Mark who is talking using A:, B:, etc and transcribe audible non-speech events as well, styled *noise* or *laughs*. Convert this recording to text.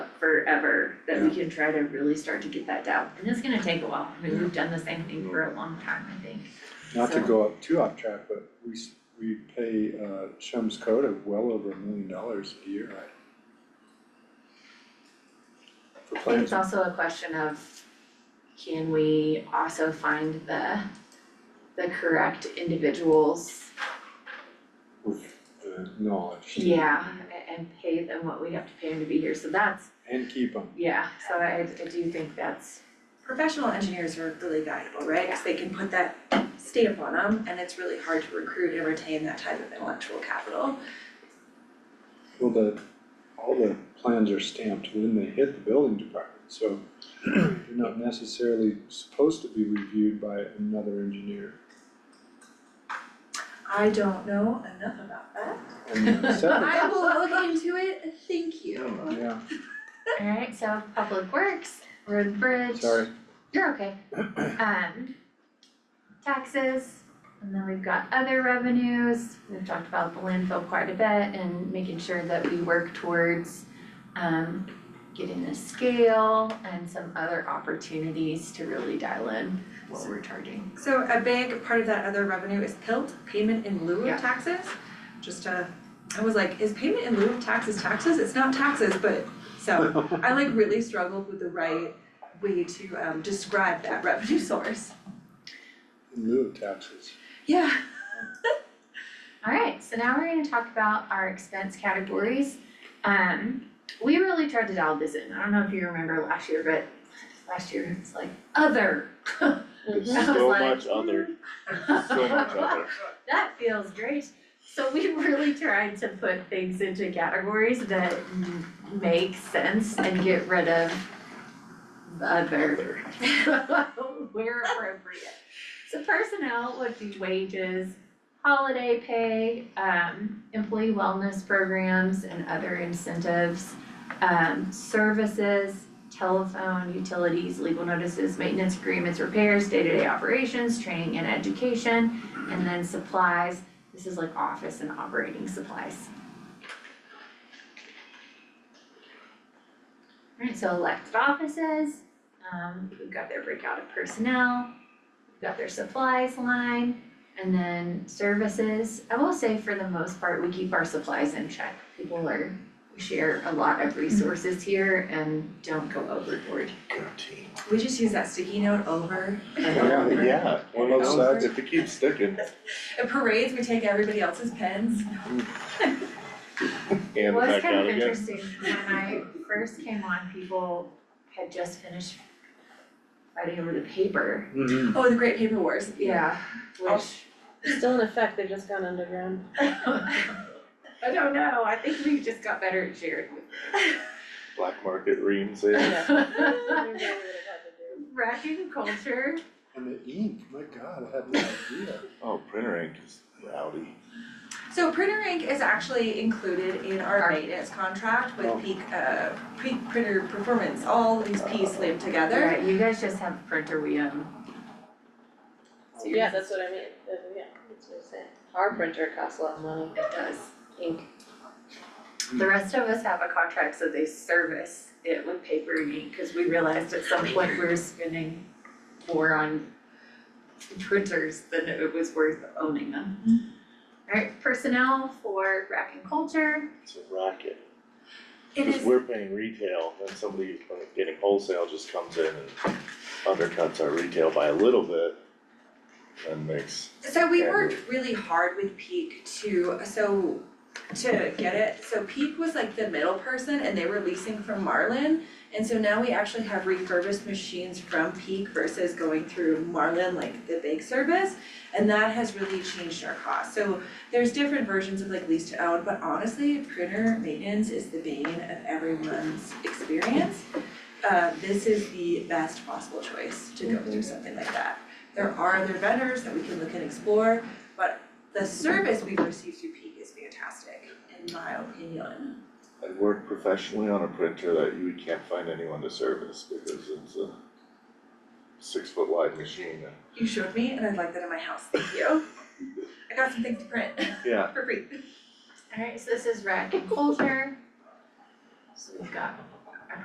A: forever, that we can try to really start to get that down. And it's gonna take a while, I mean, we've done the same thing for a long time, I think.
B: Not to
A: So-
B: go up too off track, but we s- we pay uh Shums Coda well over a million dollars a year, right? For
A: I think it's
B: plants,
A: also a question of, can we also find the, the correct individuals?
B: with the knowledge
A: Yeah, a- and pay them what we have to pay them to be here, so that's,
B: and keep them.
A: yeah, so I, I do think that's,
C: Professional engineers are really valuable, right? Cause they can put that stamp on them and it's really hard to recruit and retain that type of intellectual capital.
B: Well, the, all the plans are stamped when they hit the building department, so they're not necessarily supposed to be reviewed by another engineer.
C: I don't know enough about that.
B: And
A: *laughs*
B: the septic-
C: I will look into it, thank you.
B: yeah,
A: alright, so Public Works, Road Bridge.
D: *laughs*
B: sorry,
A: You're okay. Um, taxes, and then we've got other revenues. We've talked about the landfill quite a bit and making sure that we work towards um getting the scale and some other opportunities to really dial in what we're charging.
C: So a big part of that other revenue is PILT, payment in lieu
A: Yeah.
C: of taxes. Just uh, I was like, is payment in lieu of taxes taxes? It's not taxes, but so I like really struggled with the right way to um describe that revenue *laughs* source.
B: in lieu of taxes.
C: Yeah.
A: Alright, so now we're gonna talk about our expense categories. Um, we really tried to dial this in. I don't know if you remember last year, but last year it's like other. *laughs*
D: There's
A: *laughs* I was
D: so
A: like,
D: much other,
A: *laughs*
D: so much other.
A: That feels great. So we *laughs* really tried to put things into categories that m- make sense and get rid of other. *laughs* Where appropriate. So personnel would be wages, holiday pay, um, employee wellness programs and other incentives. Um, services, telephone, utilities, legal notices, maintenance agreements, repairs, day-to-day operations, training and education. And then supplies, this is like office and operating supplies. Alright, so elected offices, um, we've got their breakout of personnel, we've got their supplies line, and then services. I will say for the most part, we keep our supplies in check. People are, we share a lot of resources here and don't go overboard.
D: Good team.
C: We just use that sticky note over and
B: Yeah,
C: over.
D: Yeah, one of those, sides, if it keeps sticking,
C: At parades, we take everybody else's pens.
D: and
A: Well, it's
D: back
A: kind
D: out
A: of
D: again.
A: interesting, when I first came on, people had just finished fighting over the paper.
B: Mhm.
C: Oh, the Great Paper Wars.
A: Yeah. Which,
E: Still in effect, they've just gone *laughs* underground.
A: Oh. I don't know, I think we just got better at sharing *laughs*
D: Black market reams in.
A: with.
E: Everybody would have had to do.
A: Racking culture,
B: And the ink, my god, I had no idea.
D: Oh, printer ink is rowdy.
C: So printer ink is actually included in our
A: Our-
C: maintenance contract
B: Oh.
C: with peak uh peak printer performance, all these P's slammed together.
A: Alright, you guys just have a printer we own. So yours
E: Yeah,
A: is-
E: that's what I mean, Uh, yeah, that's what I'm saying. Our printer costs a lot of money.
A: It does, ink. The rest of us have a contract, so they service it with paper and ink, cause we realized at some point we were spending more on printers than it was worth owning them. Alright, personnel for rack and culture,
D: It's a racket.
C: It
D: Cause
C: is,
D: we're paying retail, then somebody who's been getting wholesale just comes in and undercuts our retail by a little bit. And makes,
C: so we worked really hard with peak to, so to get it, so peak was like the middle person and they were leasing from Marlin. And so now we actually have refurbished machines from peak versus going through Marlin, like the big service. And that has really changed our cost. So there's different versions of like lease to own, but honestly, printer maintenance is the bane of everyone's experience. Uh, this is the best possible choice to go through something like that. There are other vendors that we can look and explore, but the service we've received through Peak is fantastic, in my opinion.
D: I work professionally on a printer that you can't find anyone to service because it's a six foot wide machine and,
C: You showed me and I'd like that in my house, thank you. *laughs* I got some things to print *laughs*
D: yeah,
C: for free.
A: alright, so this is rack and culture. So we've got